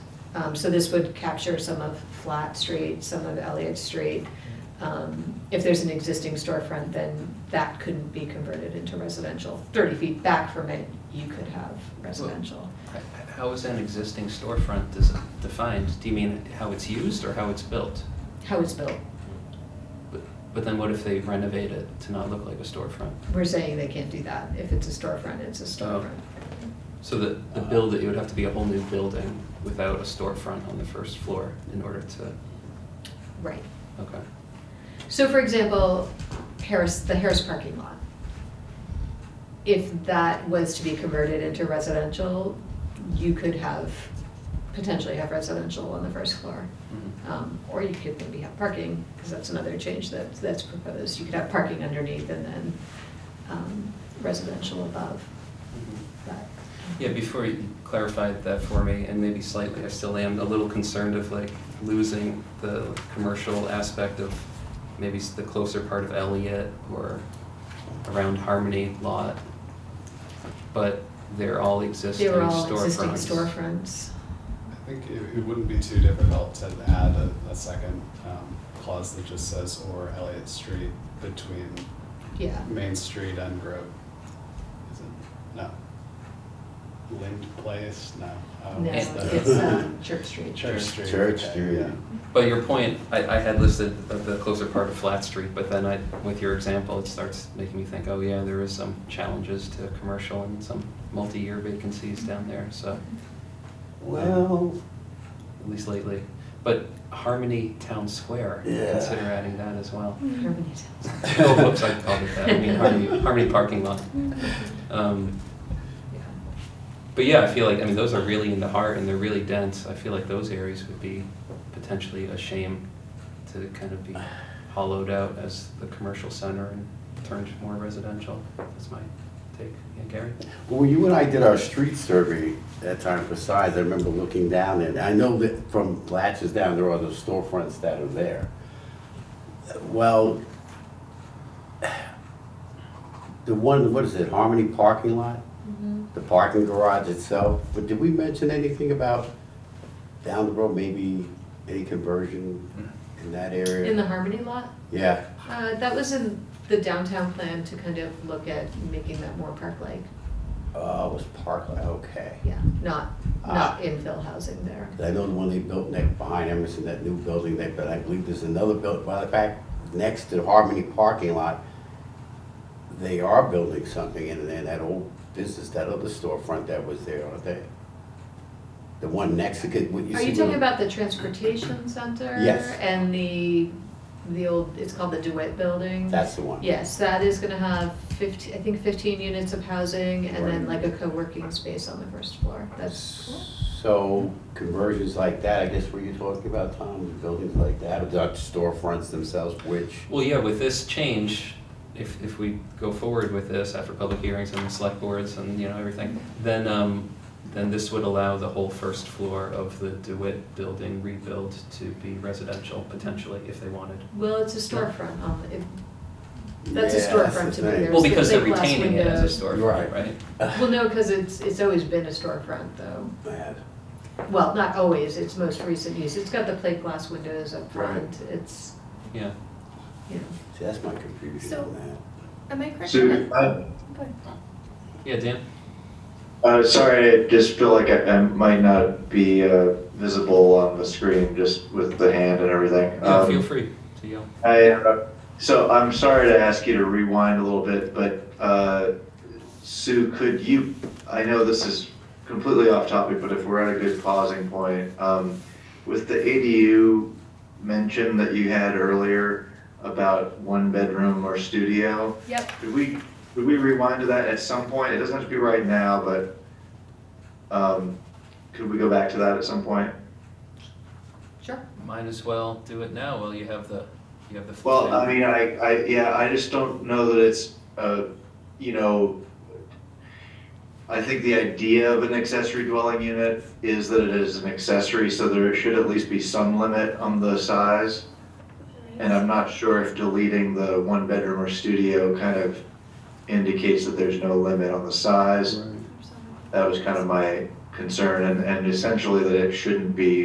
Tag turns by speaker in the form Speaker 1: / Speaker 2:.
Speaker 1: Um, So this would capture some of Flat Street, some of Elliott Street. Um, If there's an existing storefront, then that couldn't be converted into residential. 30 feet back from it, you could have residential.
Speaker 2: H- How is an existing storefront dis- defined? Do you mean how it's used or how it's built?
Speaker 1: How it's built,
Speaker 2: But- But then what if they renovate it to not look like a storefront?
Speaker 1: we're saying they can't do that. If it's a storefront, it's a storefront.
Speaker 2: So the, the build, it would have to be a whole new building without a storefront on the first floor in order to,
Speaker 1: Right.
Speaker 2: okay.
Speaker 1: So for example, Harris, the Harris parking lot. If that was to be converted into residential, you could have, potentially have residential on the first floor.
Speaker 2: Mhm.
Speaker 1: Um, Or you could maybe have parking, because that's another change that, that's proposed. You could have parking underneath and then um, residential above.
Speaker 2: Mhm.
Speaker 1: But
Speaker 2: Yeah, before you clarified that for me, and maybe slightly, I still am a little concerned of like losing the commercial aspect of maybe s- the closer part of Elliott or around Harmony Lot. But they're all
Speaker 1: They
Speaker 2: existing storefronts.
Speaker 1: were all existing storefronts.
Speaker 3: I think it, it wouldn't be too difficult to add a, a second um, clause that just says or Elliott Street between
Speaker 1: Yeah,
Speaker 3: Main Street and Grove. Is it? No. Lind Place? No. Oh,
Speaker 1: no,
Speaker 3: what's
Speaker 1: it's
Speaker 3: that?
Speaker 1: uh, Church Street.
Speaker 3: Church Street.
Speaker 4: Church
Speaker 3: okay,
Speaker 4: Street.
Speaker 3: yeah.
Speaker 2: But your point, I, I had listed the, the closer part of Flat Street, but then I, with your example, it starts making me think, oh yeah, there is some challenges to commercial and some multi-year vacancies down there, so.
Speaker 4: Well,
Speaker 2: at least lately. But Harmony Town Square,
Speaker 4: Yeah.
Speaker 2: consider adding that as well.
Speaker 1: Harmony Towns.
Speaker 2: oh, whoops, I called it that. I mean Harmony, Harmony parking lot. Um,
Speaker 1: Yeah.
Speaker 2: but yeah, I feel like I mean those are really in the heart and they're really dense. I feel like those areas would be potentially a shame to kind of be hollowed out as the commercial center and turned more residential. That's my take. Yeah, Gary.
Speaker 4: when you and I did our street survey that time for size, I remember looking down and I know that from Latches down, there are the storefronts that are there. Well, the one, what is it, Harmony Parking Lot? The parking garage itself, but did we mention anything about down the road, maybe any conversion in that area?
Speaker 1: In the Harmony lot?
Speaker 4: Yeah,
Speaker 1: Uh, that was in the downtown plan to kind of look at making that more park-like,
Speaker 4: oh, it was Parkland, okay.
Speaker 1: yeah, not,
Speaker 4: Ah.
Speaker 1: not infill housing there.
Speaker 4: I know the one they built next behind Emerson, that new building they built, I believe there's another built, by the fact, next to the Harmony parking lot, they are building something in there, that old business, that other storefront that was there, aren't they? The one next to, what you see.
Speaker 1: Are you
Speaker 4: where-
Speaker 1: talking about the transportation center?
Speaker 4: Yes.
Speaker 1: And the, the old, it's called the DeWitt Building?
Speaker 4: That's the one.
Speaker 1: Yes, that is gonna have fifteen, I think fifteen units of housing and then like
Speaker 4: Right.
Speaker 1: a co-working space on the first floor, that's.
Speaker 4: So conversions like that, I guess what you're talking about, Tom, buildings like that, or the storefronts themselves, which,
Speaker 2: Well, yeah, with this change, if, if we go forward with this after public hearings and the select boards and, you know, everything, then, um, then this would allow the whole first floor of the DeWitt building rebuild to be residential potentially, if they wanted.
Speaker 1: Well, it's a storefront, um, it, that's a
Speaker 4: Yeah, that's
Speaker 1: storefront to
Speaker 4: the
Speaker 1: me,
Speaker 4: thing.
Speaker 1: there's
Speaker 2: Well, because
Speaker 1: the
Speaker 2: they're
Speaker 1: big glass
Speaker 2: retaining it as a
Speaker 1: windows.
Speaker 2: storefront,
Speaker 4: Right.
Speaker 2: right?
Speaker 1: Well, no, cause it's, it's always been a storefront though.
Speaker 4: man,
Speaker 1: Well, not always, it's most recent use. It's got the plate glass windows up front,
Speaker 4: Right.
Speaker 1: it's,
Speaker 2: Yeah.
Speaker 1: you know,
Speaker 4: see, that's my confusion
Speaker 5: So-
Speaker 4: on that.
Speaker 5: Am I correct?
Speaker 6: So,
Speaker 5: in that-
Speaker 6: uh,
Speaker 5: Go ahead.
Speaker 2: Yeah, Dan?
Speaker 6: uh, sorry, I just feel like I, I might not be uh, visible on the screen just with the hand and everything.
Speaker 2: Yeah,
Speaker 6: Um,
Speaker 2: feel free to yell.
Speaker 6: I, uh, so I'm sorry to ask you to rewind a little bit, but uh, Sue, could you, I know this is completely off topic, but if we're at a good pausing point, um, with the ADU mention that you had earlier about one bedroom or studio,
Speaker 1: yep,
Speaker 6: could we, could we rewind to that at some point? It doesn't have to be right now, but um, could we go back to that at some point?
Speaker 1: sure.
Speaker 2: Might as well do it now while you have the, you have the floor.
Speaker 6: Well, I mean, I, I, yeah, I just don't know that it's, uh, you know, I think the idea of an accessory dwelling unit is that it is an accessory, so there should at least be some limit on the size. And I'm not sure if deleting the one bedroom or studio kind of indicates that there's no limit on the size. That was kind of my concern and, and essentially that it shouldn't be